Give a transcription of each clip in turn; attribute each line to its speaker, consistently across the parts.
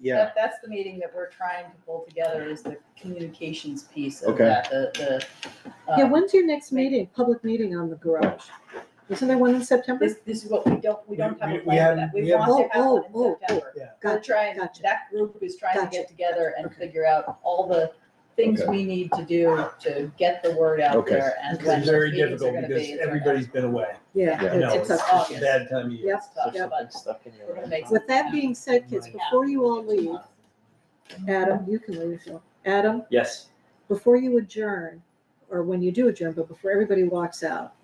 Speaker 1: yeah,
Speaker 2: That, that's the meeting that we're trying to pull together is the communications piece of
Speaker 1: Okay.
Speaker 2: that, the, the.
Speaker 3: Yeah,
Speaker 2: um,
Speaker 3: when's your next meeting, public meeting on the garage? Isn't there one in September?
Speaker 2: This, this is what, we don't, we don't have
Speaker 4: We-
Speaker 2: a
Speaker 4: we
Speaker 2: plan for that,
Speaker 4: haven't-
Speaker 2: we
Speaker 4: we haven't-
Speaker 2: want to have
Speaker 3: Oh,
Speaker 2: one
Speaker 3: oh,
Speaker 2: in
Speaker 3: oh, oh.
Speaker 2: September. We're
Speaker 3: Gotcha,
Speaker 2: trying,
Speaker 3: gotcha.
Speaker 2: that group is trying to get
Speaker 3: Gotcha.
Speaker 2: together and
Speaker 3: Okay.
Speaker 2: figure out all the things
Speaker 1: Okay.
Speaker 2: we need to do to get the word out
Speaker 1: Okay.
Speaker 2: there and
Speaker 4: Because
Speaker 2: when
Speaker 4: it's
Speaker 2: the
Speaker 4: very
Speaker 2: meetings are
Speaker 4: difficult
Speaker 2: gonna be.
Speaker 4: because
Speaker 2: is our
Speaker 4: everybody's
Speaker 2: next-
Speaker 4: been away.
Speaker 3: Yeah,
Speaker 1: Yeah.
Speaker 3: it's
Speaker 4: No,
Speaker 3: it's
Speaker 4: it's
Speaker 2: tough.
Speaker 3: up
Speaker 4: just
Speaker 3: to
Speaker 4: a
Speaker 2: August.
Speaker 4: bad time of year.
Speaker 3: Yep,
Speaker 2: Stuff,
Speaker 3: yep.
Speaker 2: but
Speaker 5: stuck in
Speaker 2: we're gonna make
Speaker 3: With that
Speaker 2: some-
Speaker 3: being said, kids, before you all leave, Adam, you can leave, Phil. Adam,
Speaker 5: Yes.
Speaker 3: before you adjourn, or when you do adjourn, but before everybody walks out,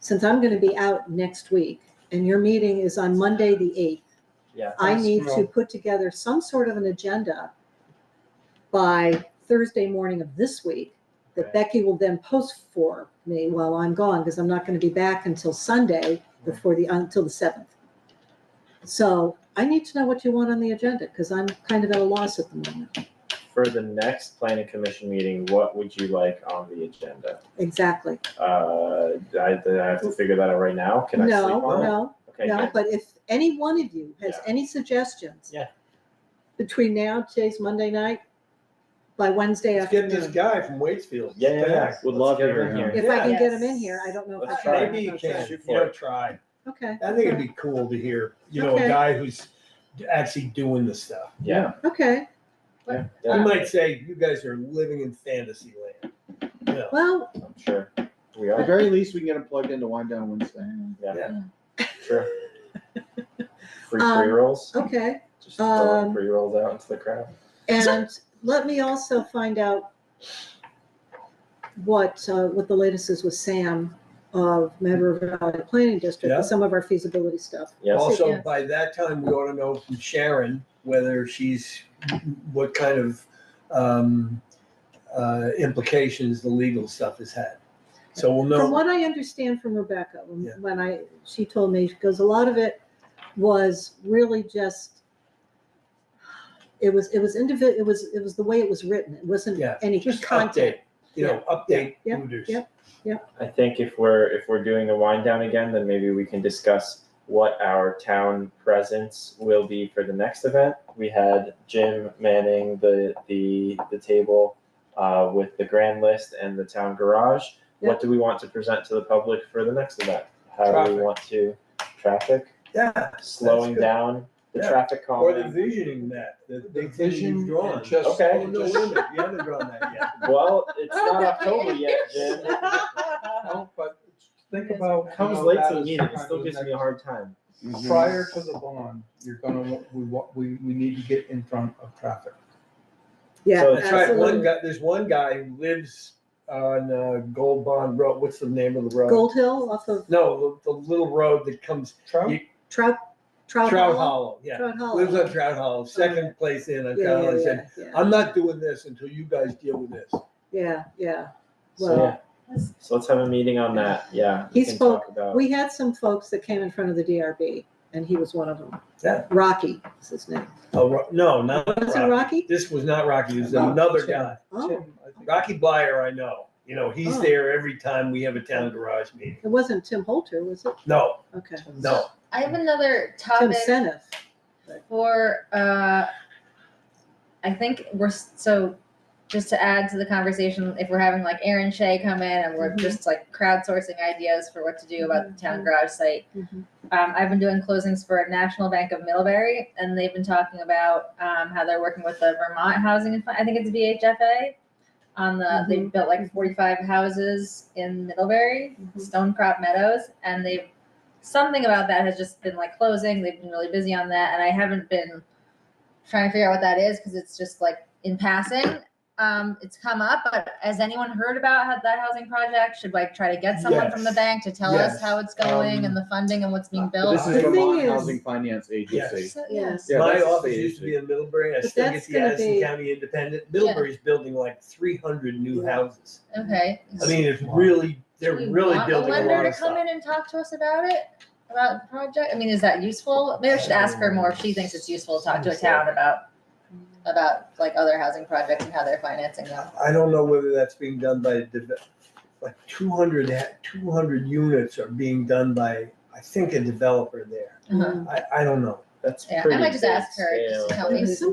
Speaker 3: since I'm gonna be out next week and your meeting is on Monday, the eighth,
Speaker 5: Yeah.
Speaker 3: I need to put together some sort of an agenda by Thursday morning of this week that
Speaker 4: Okay.
Speaker 3: Becky will then post for me while I'm gone, because I'm not gonna be back until Sunday
Speaker 5: Mm-hmm.
Speaker 3: before the, until the seventh. So I need to know what you want on the agenda, because I'm kind of at a loss at the moment.
Speaker 5: For the next planning commission meeting, what would you like on the agenda?
Speaker 3: Exactly.
Speaker 5: Uh, I, then I have to figure that out right now. Can I
Speaker 3: No,
Speaker 5: sleep on it?
Speaker 3: no,
Speaker 5: Okay,
Speaker 3: No,
Speaker 5: good.
Speaker 3: but if any one of you has
Speaker 5: Yeah.
Speaker 3: any suggestions.
Speaker 5: Yeah.
Speaker 3: Between now, today's Monday night, by Wednesday
Speaker 4: Let's get this
Speaker 3: afternoon.
Speaker 4: guy from Waitsfield.
Speaker 5: Yeah, yeah, yeah. Would
Speaker 4: Let's
Speaker 5: love
Speaker 4: get
Speaker 5: to hear
Speaker 4: him
Speaker 5: him.
Speaker 3: If I can get them in
Speaker 2: Yes.
Speaker 3: here, I don't know. if I
Speaker 5: Let's
Speaker 3: can.
Speaker 5: try.
Speaker 4: Maybe you can,
Speaker 5: Shoot
Speaker 4: you
Speaker 5: for
Speaker 4: know,
Speaker 5: it.
Speaker 4: try.
Speaker 3: Okay,
Speaker 4: I think it'd be cool to hear, you know,
Speaker 3: Okay.
Speaker 4: a guy who's actually doing the stuff.
Speaker 5: Yeah.
Speaker 3: okay.
Speaker 5: Yeah,
Speaker 4: He
Speaker 5: yeah,
Speaker 4: might say, you guys are living in fantasy land. You know,
Speaker 3: Well,
Speaker 5: I'm sure. We
Speaker 1: at the
Speaker 5: are,
Speaker 1: very least, we can get them plugged into Wind Down Wednesday.
Speaker 5: sure. Free
Speaker 3: Um,
Speaker 5: pre rolls,
Speaker 3: okay.
Speaker 5: just throwing
Speaker 3: um,
Speaker 5: pre rolls out into the crowd.
Speaker 3: And let me also find out what, uh, what the latest is with Sam of Medgar Valley Planning District,
Speaker 4: Yeah.
Speaker 3: and some of our feasibility stuff.
Speaker 5: Yes,
Speaker 4: Also,
Speaker 2: Yes.
Speaker 4: by that time, we ought to know from Sharon whether she's, what kind of um, uh, implications the legal stuff has had. So we'll
Speaker 3: From
Speaker 4: know.
Speaker 3: what I understand from Rebecca, when-
Speaker 4: Yeah.
Speaker 3: when I, she told me, she goes, a lot of it was really just, it was, it was individ, it was, it was the way it was written. It wasn't
Speaker 4: Yeah,
Speaker 3: any
Speaker 4: Just
Speaker 3: content.
Speaker 4: update, you know, update
Speaker 3: Yeah, yeah,
Speaker 4: Hooters.
Speaker 3: yeah.
Speaker 5: I think if we're, if we're doing the wind down again, then maybe we can discuss what our town presence will be for the next event. We had Jim manning the, the, the table, uh, with the grand list and the town garage. What do we want to present to the public for the next event? How do we
Speaker 4: Traffic.
Speaker 5: want to, traffic,
Speaker 4: Yeah,
Speaker 5: slowing
Speaker 4: good.
Speaker 5: down, the
Speaker 4: Yeah.
Speaker 5: traffic
Speaker 4: or the
Speaker 5: calming?
Speaker 4: visioning map, the, the
Speaker 1: The
Speaker 4: vision
Speaker 1: vision
Speaker 4: you've drawn.
Speaker 1: and just-
Speaker 5: Okay.
Speaker 4: Oh, no, wait a minute, you haven't drawn that yet.
Speaker 5: Well, it's not October yet, Jim.
Speaker 1: No, but
Speaker 2: think about
Speaker 5: Comes late to the meeting, it still gives me a hard Mhm. time.
Speaker 6: prior to the bond, you're gonna, we, wa- we, we need to get in front of traffic.
Speaker 3: Yeah,
Speaker 5: So
Speaker 4: That's right, one
Speaker 3: absolutely.
Speaker 4: guy, there's one guy who lives on uh, Gold Bond Road, what's the name of the road?
Speaker 3: Gold Hill off of
Speaker 4: No, the, the little road that comes,
Speaker 6: Trout,
Speaker 4: You-
Speaker 3: Trout, Trout Hollow.
Speaker 4: Trout Hollow, yeah,
Speaker 3: Trout Hollow.
Speaker 4: lives on Trout Hollow, second place in on
Speaker 3: Yeah,
Speaker 4: Trout Hollow,
Speaker 3: yeah,
Speaker 4: He said,
Speaker 3: yeah, yeah,
Speaker 4: I'm not doing this until you guys deal with this.
Speaker 3: yeah, yeah.
Speaker 5: So,
Speaker 3: Well,
Speaker 5: yeah. So let's have a meeting on that, yeah. we
Speaker 3: He
Speaker 5: can talk about-
Speaker 3: we had some folks that came in front of the DRB and he was one of them.
Speaker 4: Yeah.
Speaker 3: Rocky is his name.
Speaker 4: Oh, Ro- no, not
Speaker 3: Was it
Speaker 4: Rocky,
Speaker 3: Rocky?
Speaker 4: this was not Rocky, this was
Speaker 6: No,
Speaker 4: another
Speaker 6: Sharon.
Speaker 4: guy,
Speaker 3: Oh,
Speaker 6: Tim, I think-
Speaker 4: Rocky Blyer, I know, you know, he's
Speaker 3: Oh.
Speaker 4: there every time we have a town garage meeting,
Speaker 3: it wasn't Tim Holter, was it?
Speaker 4: no,
Speaker 3: Okay.
Speaker 4: no.
Speaker 7: I have another
Speaker 3: Tim
Speaker 7: topic
Speaker 3: Seneff.
Speaker 7: for, uh, I think we're, s- so, just to add to the conversation, if we're having like Aaron Shea come in and we're
Speaker 3: Mhm.
Speaker 7: just like crowdsourcing ideas for what to do about the town garage site.
Speaker 3: Mhm.
Speaker 7: Um, I've been doing closings for National Bank of Middlebury and they've been talking about, um, how they're working with the Vermont Housing, and Fi- I think it's VHFA. On the, they built like forty-five houses in Middlebury. Stonecrop Meadows, and they've something about that has just been like closing. They've been really busy on that, and I haven't been trying to figure out what that is because it's just like in passing. Um, it's come up, but has anyone heard about how that housing project? Should like try to get someone from the
Speaker 4: Yes.
Speaker 7: bank to tell us
Speaker 4: Yes.
Speaker 7: how it's going
Speaker 4: Um,
Speaker 7: and the funding and what's being
Speaker 1: But
Speaker 7: built.
Speaker 1: This is
Speaker 3: The thing
Speaker 1: Vermont
Speaker 3: is-
Speaker 1: Housing Finance Agency.
Speaker 7: So,
Speaker 3: Yes.
Speaker 1: Yeah,
Speaker 4: My
Speaker 1: that's a
Speaker 4: office
Speaker 1: state
Speaker 4: used to
Speaker 1: issue.
Speaker 4: be in Middlebury, I
Speaker 3: But
Speaker 4: still
Speaker 3: that's
Speaker 4: get the
Speaker 3: gonna
Speaker 4: Addison
Speaker 3: be-
Speaker 4: County Independent, Middlebury's building like three hundred new
Speaker 3: Yeah.
Speaker 4: houses.
Speaker 7: Okay.
Speaker 4: I mean, it's really, they're
Speaker 7: Do we
Speaker 4: really
Speaker 7: want
Speaker 4: building
Speaker 7: a
Speaker 4: a
Speaker 7: lender
Speaker 4: lot
Speaker 7: to
Speaker 4: of
Speaker 7: come
Speaker 4: stuff.
Speaker 7: in and talk to us about it, about the project. I mean, is that useful? Maybe I should ask her more if she thinks it's useful to talk to a town about about like other housing projects and how they're financing them.
Speaker 4: I don't know whether that's being done by, a deve- like 200 ha- 200 units are being done by, I think, a developer there.
Speaker 7: Uh-huh.
Speaker 4: I, I don't know.
Speaker 5: That's
Speaker 7: Yeah, I
Speaker 5: pretty
Speaker 7: might just
Speaker 5: big
Speaker 7: ask her just
Speaker 5: scale.
Speaker 7: to tell me.
Speaker 3: Some